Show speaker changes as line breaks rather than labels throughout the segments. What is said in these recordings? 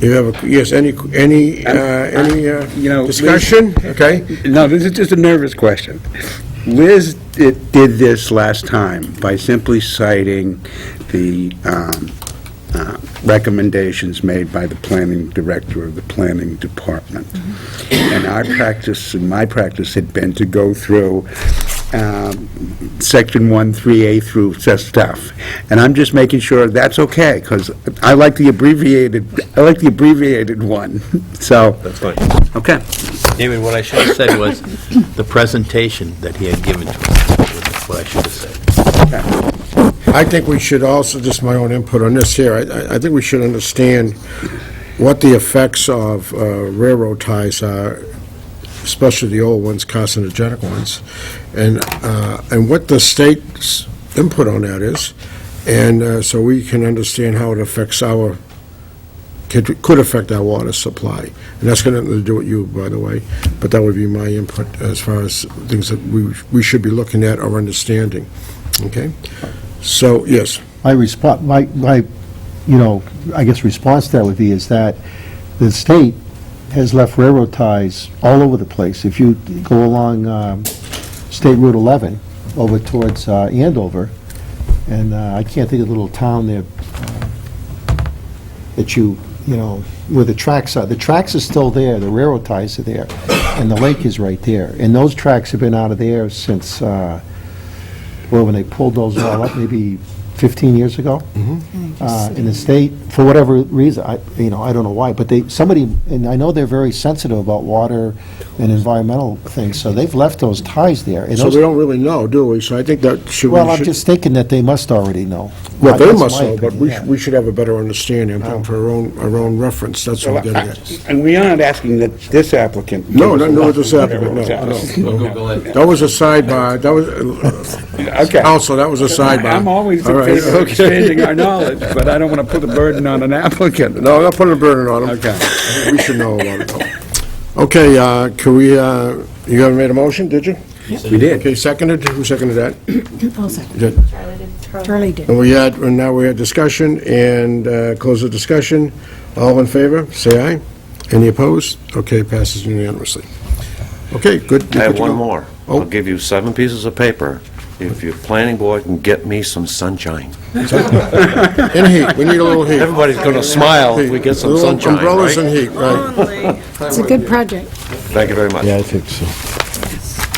You have, a yes, any, any, uh, any uh,
You know, Liz-
discussion? Okay,
No, this is just a nervous question. Liz did did this last time by simply citing the um, uh, recommendations made by the planning director of the planning department.
Mm-hmm.
And our practice, and my practice had been to go through um, section 1, 3A through s- stuff. And I'm just making sure that's okay, because I like the abbreviated, I like the abbreviated one, so,
That's fine.
okay.
David, what I should have said was the presentation that he had given to us, what I should have said.
I think we should also, just my own input on this here, I, I- I think we should understand what the effects of uh, railroad ties are, especially the old ones, carcinogenic ones, and, uh, and what the state's input on that is, and uh, so we can understand how it affects our, could could affect our water supply. And that's got nothing to do with you, by the way, but that would be my input as far as things that we, we should be looking at or understanding, okay? So, yes,
My response, my, my, you know, I guess response to that would be is that the state has left railroad ties all over the place. If you go along um, State Route 11 over towards uh, Andover, and uh, I can't think of the little town there uh, that you, you know, where the tracks are, the tracks are still there, the railroad ties are there, and the lake is right there. And those tracks have been out of there since, uh, well, when they pulled those all up, maybe 15 years ago.
Mm-hmm.
Uh, In the state, for whatever reason, I, you know, I don't know why, but they, somebody, and I know they're very sensitive about water and environmental things, so they've left those ties there. And
so
those-
we don't really know, do we? So I think that should,
Well, I'm
we should,
just thinking that they must already know.
well, they
That's
must
my
know, but
opinion,
we,
yeah.
sh- we should have a better understanding for our own, our own reference, that's what I'm getting at.
And we aren't asking that this applicant.
No, no, no, it's a separate, no, no, no. That was a sidebar, that was,
Okay.
also, that was a sidebar.
I'm always
All
in
right,
favor of
okay.
expanding our knowledge, but I don't want to put a burden on an applicant.
No, I'm not putting a burden on them.
Okay.
We should know about it, though. Okay, uh, can we, uh, you haven't made a motion, did you?
We did.
Okay, seconded, who seconded that?
I'll second.
Did-
Charlie did.
And we had, and now we had discussion, and uh, close the discussion. All in favor, say aye. Any opposed? Okay, passes unanimously. Okay, good.
I
good
have
to
one
go.
more.
Oh.
I'll give you seven pieces of paper if your planning board can get me some sunshine.
And heat, we need a little heat.
Everybody's going to smile if we get some
Little
sunshine,
Umbrellas and
right?
heat, right.
It's a good project.
Thank you very much.
Yeah, I think so.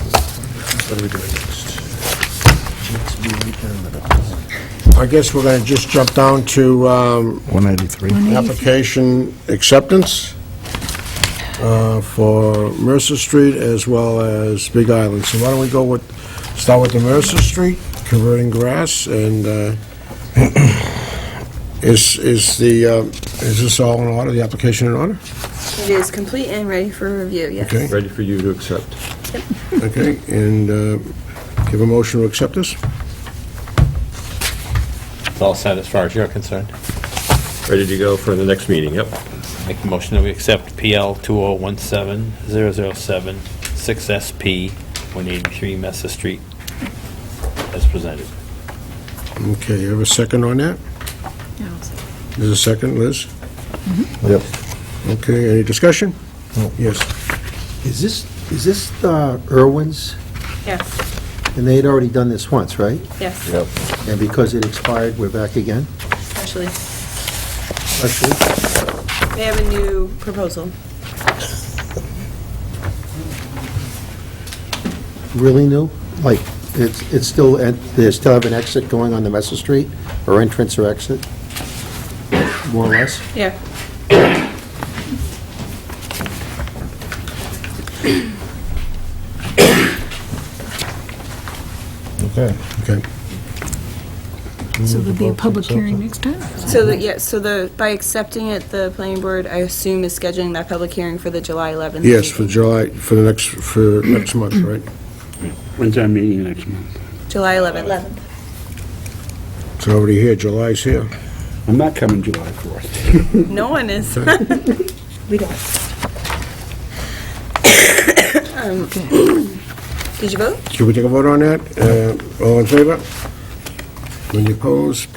uh, I guess we're going to just jump down to um,
193.
application acceptance uh, for Mercer Street as well as Big Island. So why don't we go with, start with the Mercer Street, converting grass, and uh, is, is the, uh, is this all in order, the application in order?
It is complete and ready for review, yes.
Okay.
Ready for you to accept.
Okay, and uh, give a motion to accept this?
It's all set as far as you're concerned.
Ready to go for the next meeting, yep.
Make a motion that we accept PL 2017007, 6SP, 183 Messer Street, as presented.
Okay, you have a second on that? There's a second, Liz?
Yep.
Okay, any discussion? Yes.
Is this, is this uh, Irwin's?
Yes,
And they had already done this once, right?
yes,
And because it expired, we're back again?
actually.
Actually,
They have a new proposal.
Really new? Like, it's, it's still, en- they still have an exit going on the Messer Street, or entrance or exit? More or less?
Yeah.
Okay.
So there'll be a public hearing next time?
So, the- yeah, so the, by accepting it, the planning board, I assume, is scheduling that public hearing for the July 11th.
Yes, for
meeting.
July, for the next, for next month, right?
When's our meeting next month?
July 11th.
It's already here, July's here.
I'm not coming July 4th.
No one is. We don't. Did you vote? Um,
Should we take a vote on that? Uh, All in favor? Any opposed?